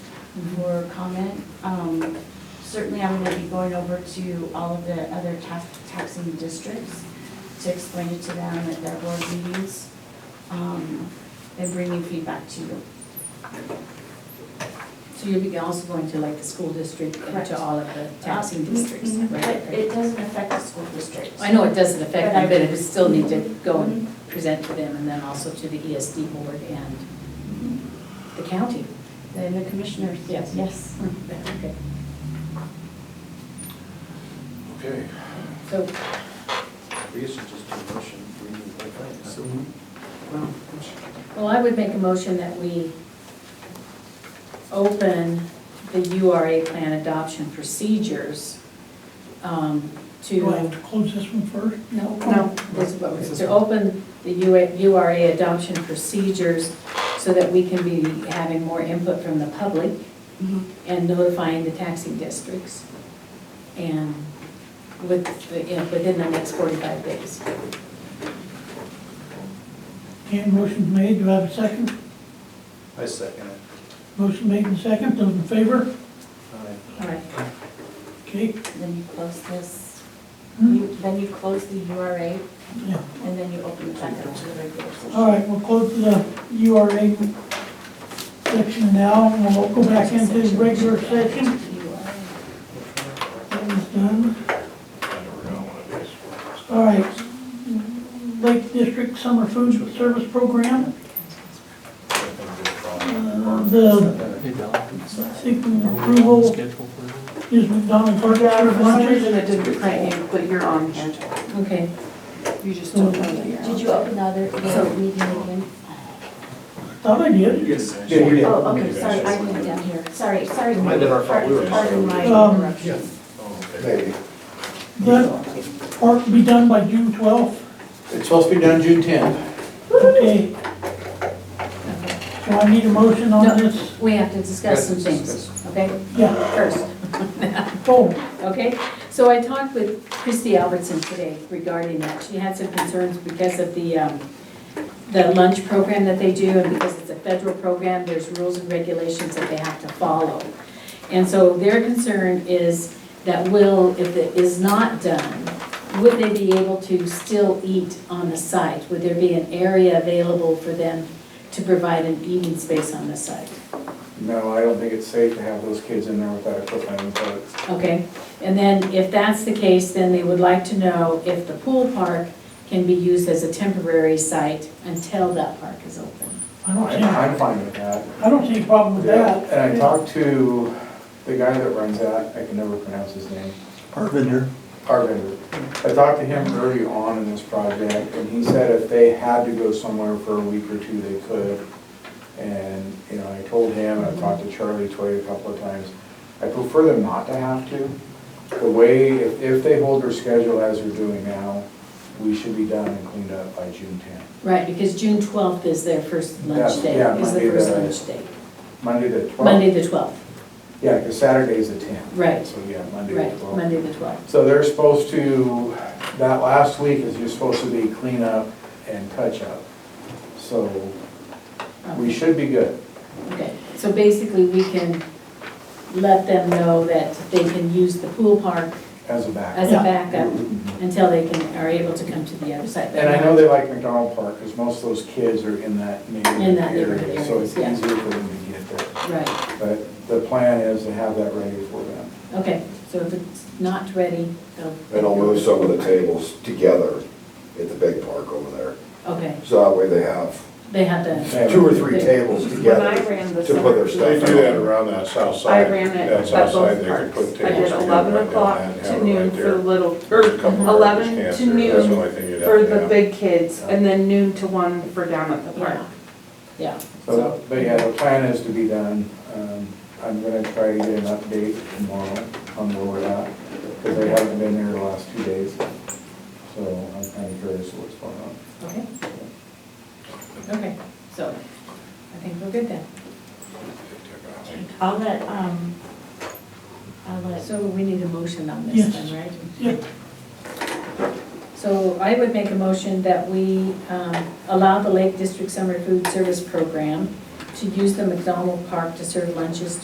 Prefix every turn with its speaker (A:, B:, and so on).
A: for comment. Um, Certainly, I'm going to be going over to all of the other tax- taxing districts to explain it to them at their board meetings um, and bringing feedback to you.
B: So you'll be also going to like the school district and
A: Correct.
B: to all of the taxing districts,
A: Mhm. But
B: right?
A: it doesn't affect the school district.
B: I know it doesn't affect
A: But I- Mm-hmm.
B: them, but it would still need to go and present to them and then also to the ESD board and
A: Mm-hmm.
B: the county.
A: And the commissioners.
B: Yes.
A: Yes.
B: Okay.
C: Okay,
B: So,
C: we should just do a motion, we need to vote. So,
B: well, well, I would make a motion that we open the URA plan adoption procedures um, to.
D: Do I have to close this one first?
B: No.
D: No.
B: This is what we- To open the UA URA adoption procedures so that we can be having more input from the public
A: Mhm.
E: Mm-hmm.
B: and notifying the taxing districts. And with, the- you know, within the next 45 days.
D: Okay, motion's made, do I have a second?
C: I second it.
D: Motion made and second, those in favor?
C: Aye.
B: All right.
D: Okay,
A: Then you close this,
D: Hmm.
A: you- then you close the URA
D: yeah,
A: and then you open it back up to the regular session.
D: all right, we'll close the URA section now, and we'll go back into the regular session. That was done. All right, Lake District Summer Food Service Program, uh, the
F: Hey, Bella.
D: seeking approval
F: Schedule for it?
D: is McDonald Park Service
E: For some
D: lunches.
E: reason it didn't print you, but you're on here.
B: Okay,
E: You just don't
B: Mm-hmm.
E: know that you're on.
A: Did you open the other, the other meeting again?
D: Thought I did.
A: Oh, okay, sorry, I went down here. Sorry, sorry.
C: Might have been our fault, we were just-
A: Pardon my
D: Um,
A: interruption.
C: Oh, okay.
G: Maybe.
D: That part be done by June twelfth,
G: It's supposed to be done June tenth.
D: okay? So I need a motion on
B: No.
D: this,
B: we have to discuss some things, okay?
D: yeah,
B: First.
D: oh,
B: Okay, so I talked with Christy Albertson today regarding that. She had some concerns because of the, um, the lunch program that they do, and because it's a federal program, there's rules and regulations that they have to follow. And so their concern is that will, if it is not done, would they be able to still eat on the site? Would there be an area available for them to provide an eating space on the site?
G: No, I don't think it's safe to have those kids in there with that equipment, but
B: Okay, and then if that's the case, then they would like to know if the pool park can be used as a temporary site until that park is open.
D: I don't see,
G: I'm, I'm fine with that.
D: I don't see a problem with that.
G: And I talked to the guy that runs that, I can never pronounce his name,
F: Parvinder.
G: Arvinder. I talked to him early on in this project, and he said if they had to go somewhere for a week or two, they could. And, you know, I told him, and I talked to Charlie Toy a couple of times, I prefer them not to have to. The way, if, if they hold their schedule as they're doing now, we should be done and cleaned up by June tenth.
B: Right, because June twelfth is their first lunch
G: That's-
B: day,
G: yeah,
B: is the
G: Monday
B: first
G: the-
B: lunch day.
G: Monday the twelfth?
B: Monday the twelfth,
G: Yeah, because Saturday's the tenth.
B: Right.
G: So, yeah, Monday the
B: right,
G: twelfth.
B: Monday the twelfth.
G: So they're supposed to, that last week is just supposed to be cleanup and touch-up. So we should be good.
B: Okay, so basically we can let them know that they can use the pool park
G: as a
B: as
G: backup.
B: a
D: Yeah.
B: backup until they can, are able to come to the other side.
G: And I know they like McDonald Park, because most of those kids are in that
B: In
G: neighborhood
B: that neighborhood
G: area, so it's
B: area, yeah.
G: easier for them to get there.
B: Right.
G: But the plan is to have that ready for them.
B: Okay, so if it's not ready, they'll.
H: And I'll move some of the tables together at the big park over there.
B: Okay,
H: So that way they have
B: they have to,
H: two or three tables
E: When I
H: together
E: ran the
H: to put their
E: summer,
I: They
H: stuff
I: do that
H: out.
I: around that south
E: I
I: side.
E: ran it
I: That
E: at
I: south side, they
E: both
I: could put
E: parks. I
I: tables
E: did
I: together
E: eleven
I: and
E: o'clock
I: have it
E: to
I: right
E: noon
I: there.
E: for little,
I: There's a couple of
E: Eleven
I: garbage cans
E: to
I: there. That's the
E: noon
I: only thing you'd
E: for
I: have to
E: the
I: have.
E: big kids, and then noon to one for down at the park.
B: yeah, yeah.
G: So, but yeah, the plan is to be done. Um, I'm gonna try to get an update tomorrow on where we're at, because they haven't been here the last two days. So I'm kind of curious what's going on.
B: Okay. Okay, so I think we're good then.
A: I'll let, um, I'll let.
B: So we need a motion on
D: Yes.
B: this then, right?
D: Yeah,
B: So I would make a motion that we um, allow the Lake District Summer Food Service Program to use the McDonald Park to serve lunches